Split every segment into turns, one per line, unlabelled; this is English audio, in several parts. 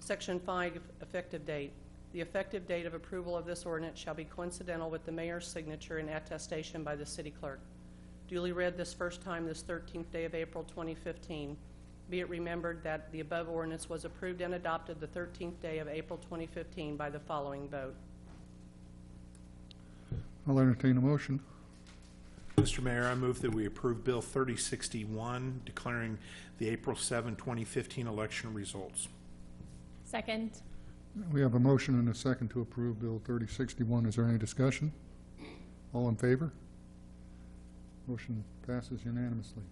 Section 5, effective date. The effective date of approval of this ordinance shall be coincidental with the mayor's signature and attestation by the city clerk. Duly read this first time this 13th day of April 2015. Be it remembered that the above ordinance was approved and adopted the 13th day of April 2015 by the following vote.
I'll entertain a motion.
Mr. Mayor, I move that we approve Bill 3061, declaring the April 7, 2015 election results.
Second.
We have a motion and a second to approve Bill 3061. Is there any discussion? All in favor? Motion passes unanimously.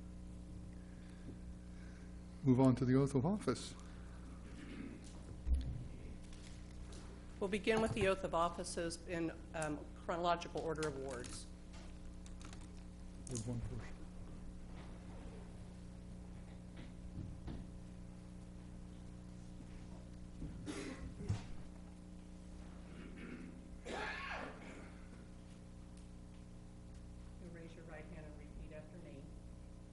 Move on to the oath of office.
We'll begin with the oath of offices in um, chronological order of wards.
There's one first.
You raise your right hand and repeat after me.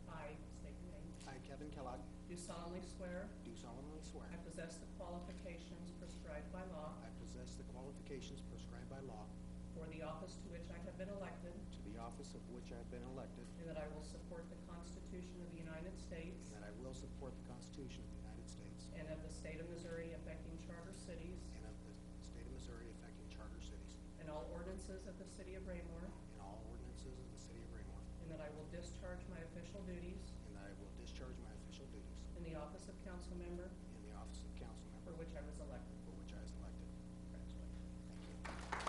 I state your name.
I, Kevin Kellogg,
Do solemnly swear
do solemnly swear
I possess the qualifications prescribed by law
I possess the qualifications prescribed by law
for the office to which I have been elected,
to the office of which I have been elected,
and that I will support the Constitution of the United States
and that I will support the Constitution of the United States
and of the state of Missouri affecting charter cities
and of the state of Missouri affecting charter cities
and all ordinances of the city of Raymore,
and all ordinances of the city of Raymore,
and that I will discharge my official duties
and that I will discharge my official duties
in the office of council member
in the office of council
for
member
which I was elected.
for which I was elected.
Congratulations.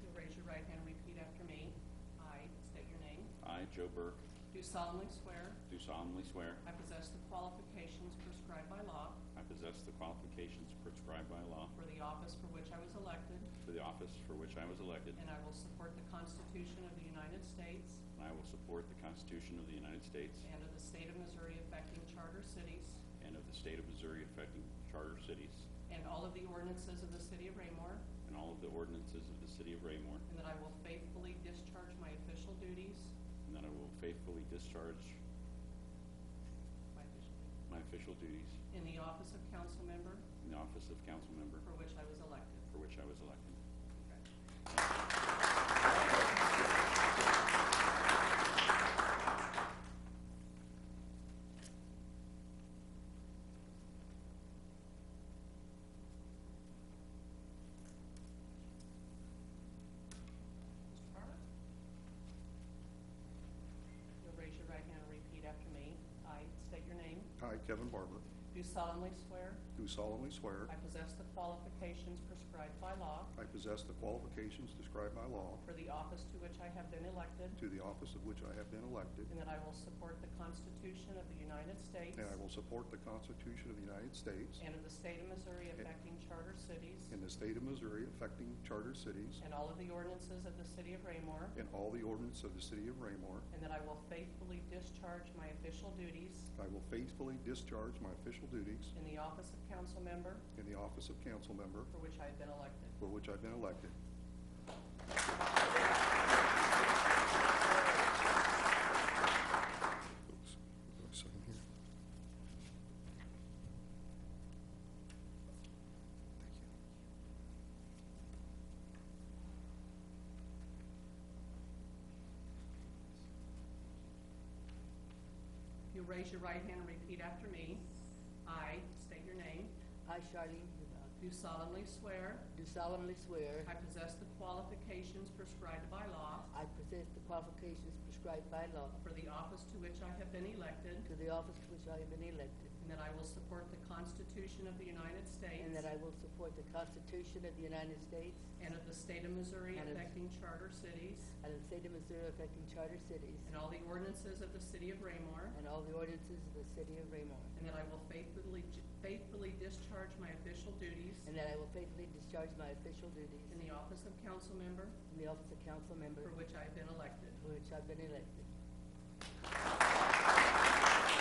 You'll raise your right hand and repeat after me. I state your name.
I, Joe Burke,
Do solemnly swear
do solemnly swear
I possess the qualifications prescribed by law
I possess the qualifications prescribed by law
for the office for which I was elected,
for the office for which I was elected,
and I will support the Constitution of the United States
and I will support the Constitution of the United States
and of the state of Missouri affecting charter cities
and of the state of Missouri affecting charter cities
and all of the ordinances of the city of Raymore,
and all of the ordinances of the city of Raymore,
and that I will faithfully discharge my official duties,
and that I will faithfully discharge
my official duties,
my official duties
in the office of council member
in the office of council member
for which I was elected.
for which I was elected.
Mr. Farmer? You'll raise your right hand and repeat after me. I state your name.
I, Kevin Bartlett,
Do solemnly swear
do solemnly swear
I possess the qualifications prescribed by law
I possess the qualifications described by law
for the office to which I have been elected,
to the office of which I have been elected,
and that I will support the Constitution of the United States
and I will support the Constitution of the United States
and of the state of Missouri affecting charter cities
and the state of Missouri affecting charter cities
and all of the ordinances of the city of Raymore,
and all the ordinance of the city of Raymore.
and that I will faithfully discharge my official duties
I will faithfully discharge my official duties
in the office of council member
in the office of council member
for which I have been elected.
for which I've been elected. Oops. Sign here. Thank you.
If you raise your right hand and repeat after me, I state your name,
I, Charlene Hubach,
do solemnly swear
do solemnly swear
I possess the qualifications prescribed by law
I possess the qualifications prescribed by law
for the office to which I have been elected,
to the office to which I have been elected,
and that I will support the Constitution of the United States
and that I will support the Constitution of the United States
and of the state of Missouri
And of-
affecting charter cities
and the state of Missouri affecting charter cities
and all the ordinances of the city of Raymore,
and all the ordinances of the city of Raymore,
and that I will faithfully faithfully discharge my official duties
and that I will faithfully discharge my official duties
in the office of council member
in the office of council member
for which I have been elected.
for which I've been elected.